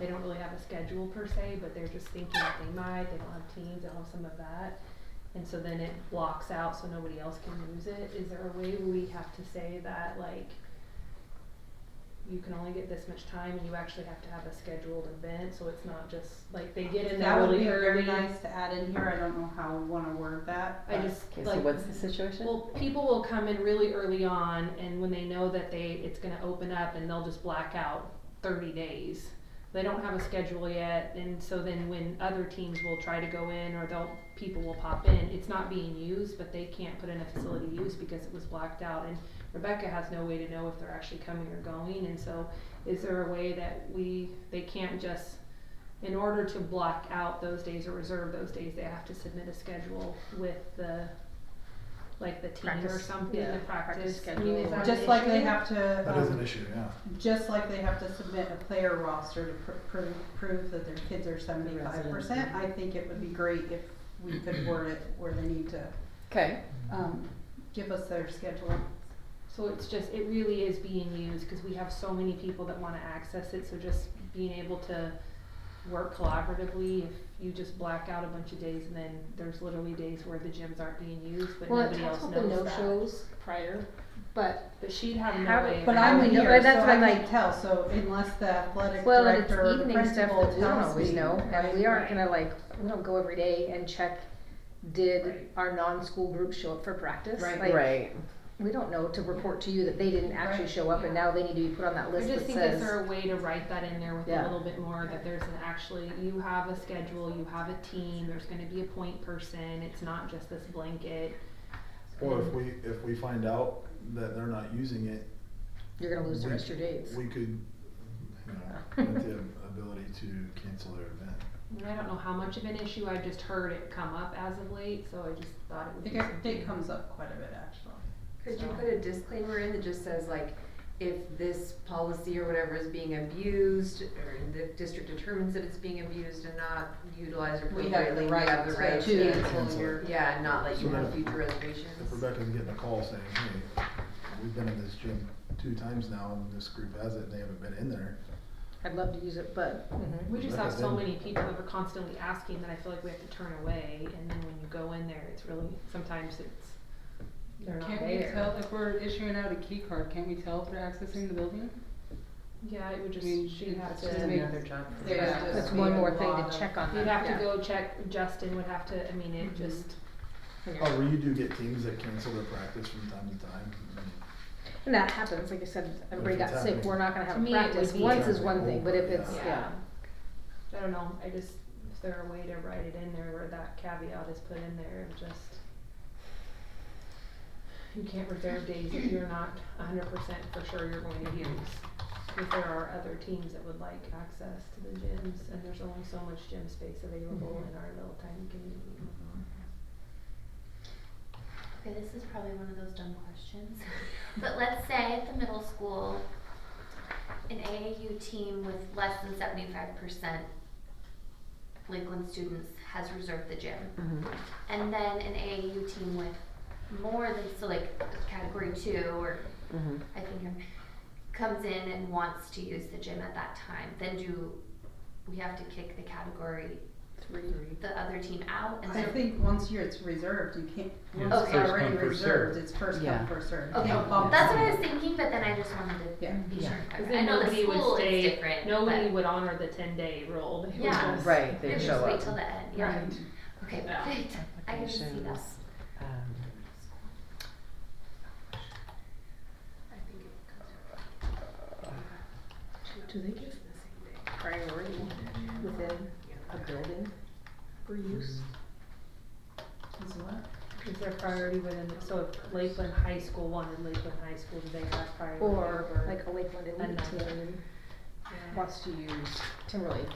They don't really have a schedule per se, but they're just thinking that they might, they don't have teams, they don't have some of that. And so then it blocks out so nobody else can use it. Is there a way we have to say that like you can only get this much time and you actually have to have a scheduled event, so it's not just like they get in there That would really be very early. nice to add in here, I don't know how I wanna word that. I but- just Okay, so like what's the situation? Well, people will come in really early on, and when they know that they it's going to open up, and they'll just black out thirty days. They don't have a schedule yet, and so then when other teams will try to go in, or they'll people will pop in, it's not being used, but they can't put in a facility use because it was blacked out. And Rebecca has no way to know if they're actually coming or going, and so is there a way that we they can't just in order to block out those days or reserve those days, they have to submit a schedule with the, like the team or Practice. something, Yeah, the practice practice. I schedule. mean, is that an Just like they issue? have to, That is an um, issue, yeah. just like they have to submit a player roster to pr- prove, prove that their kids are seventy-five percent, I think it would be great if we could word it where they need to, Okay, um, give us their schedule. So it's just, it really is being used, cause we have so many people that wanna access it, so just being able to work collaboratively, if you just black out a bunch of days and then there's literally days where the gyms aren't being used, but Well, it nobody talks else about the knows that. no-shows prior, but, But she'd have Have no it- way. But around I'm would in it. know- here, so that's I what can't I- tell, so unless the athletic well, and it's director or the evening stuff principal tells that me, we don't always know, and we right? aren't Right. gonna like, we don't go every day and check, did Right. our non-school group show up for practice? Right. Like, right. We don't know to report to you that they didn't actually Right. show up, and now they need to be put on that I list just that think is says, there a way to write that in there with a Yeah. little bit more, that there's an actually, you have a schedule, you have a team, there's gonna be a point person, it's not just this blanket. Or if we, if we find out that they're not using it. you're gonna lose the we- rest of your days. We could, you know, have the ability to cancel their event. And I don't know how much of an issue, I've just heard it come up as of late, so I just thought it I would think be it- it something. comes up quite a bit, actually. Could you So- put a disclaimer in that just says like, if this policy or whatever is being abused, or the district determines that it's being abused and not utilized We have appropriately, the we right have the right to to. cancel Cancel it. your. Yeah, and not let you So have if- future reservations. If Rebecca's getting a call saying, hey, we've been in this gym two times now and this group has it and they haven't been in there. I'd love to use it, but We just have Rebecca, so then- many people that are constantly asking that I feel like we have to turn away, and then when you go in there, it's really, sometimes it's, they're not there. Can't we tell if we're issuing out a key card, can't we tell if they're accessing the building? Yeah, it would just, I mean, she'd it's have to. just make- job for There's them. just That's one being more a thing lot Um, to of- check on You'd that, have to yeah. go check, Justin would have to, I mean, Mm-hmm. it just, When you're- However, you do get teams that cancel their practice from time to time. I mean, And that happens, like I said, everybody If it's got sick, happening. we're not gonna To have me, it practice, would be- once is one thing, but if Yeah. it's, yeah. I don't know, I just, if there a way to write it in there where that caveat is put in there of just. You can't reserve days if you're not hundred percent for sure you're going to use. If there are other teams that would like access to the gyms and there's only so much gym space available Mm-hmm. in our little tiny community. Okay, this is probably one of those dumb questions. but let's say at the middle school, an AAU team with less than 75% Lakeland students has reserved the gym. And then an AAU team with more than, so like category two or Mm-hmm. I think I'm- comes in and wants to use the gym at that time, then do we have to kick the category, the other team out? And I so- think once you're, it's reserved, you can't, Yeah, once it's it's first already come, first reserved, served. it's first Yeah. come, first served. Okay, Don't bump that's what I somebody. was thinking, but then I just wanted to Yeah. be Yeah. sure. Cause I then know the nobody school would is stay, different, nobody but would honor the ten day rule. They would Yeah. just- Right, Maybe they just show wait up. till the end, yeah. Right. Okay, Yeah. perfect. I can see that. Applications, um, Do they give priority within a building for use? Is what? Is there priority within, so if Lakeland High School wanted Lakeland High School, do they have priority Or over? like a Lakeland Elite Another. team Yeah. wants to use Timberlake,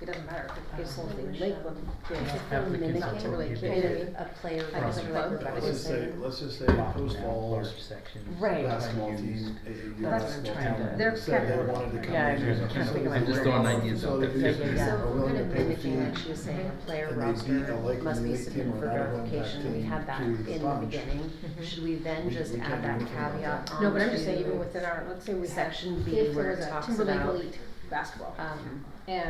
it doesn't matter if it's Um, only Michelle. Lakeland. Yeah. Mimicking Applicants not will Timberlake, be you know what I admitted. mean? A player. I guess versus like player Rebecca Let's was just say, versus- let's just say Locked Post down Falls large sections. Right. basketball Not used. team, AAU That's what I'm basketball trying team, to- They're said kind they of- wanted to come Yeah, I'm and use just it. trying to think of So my they're words. Just going to throwing the ideas out there. Yeah, facility, they're we're willing kind to of pay the mimicking fee. what she was saying, a player And they beat a roster Lakeland must be Elite team submitted or for an out-of-home verification, we team had that to the in the sponge. beginning. Mhm. Should we then We- just we add can't that do anything about caveat that. Mm-hmm. No, but I'm onto just saying even within our, let's say we had, Section B if there where was it a talks Timberlake about, Elite basketball um, and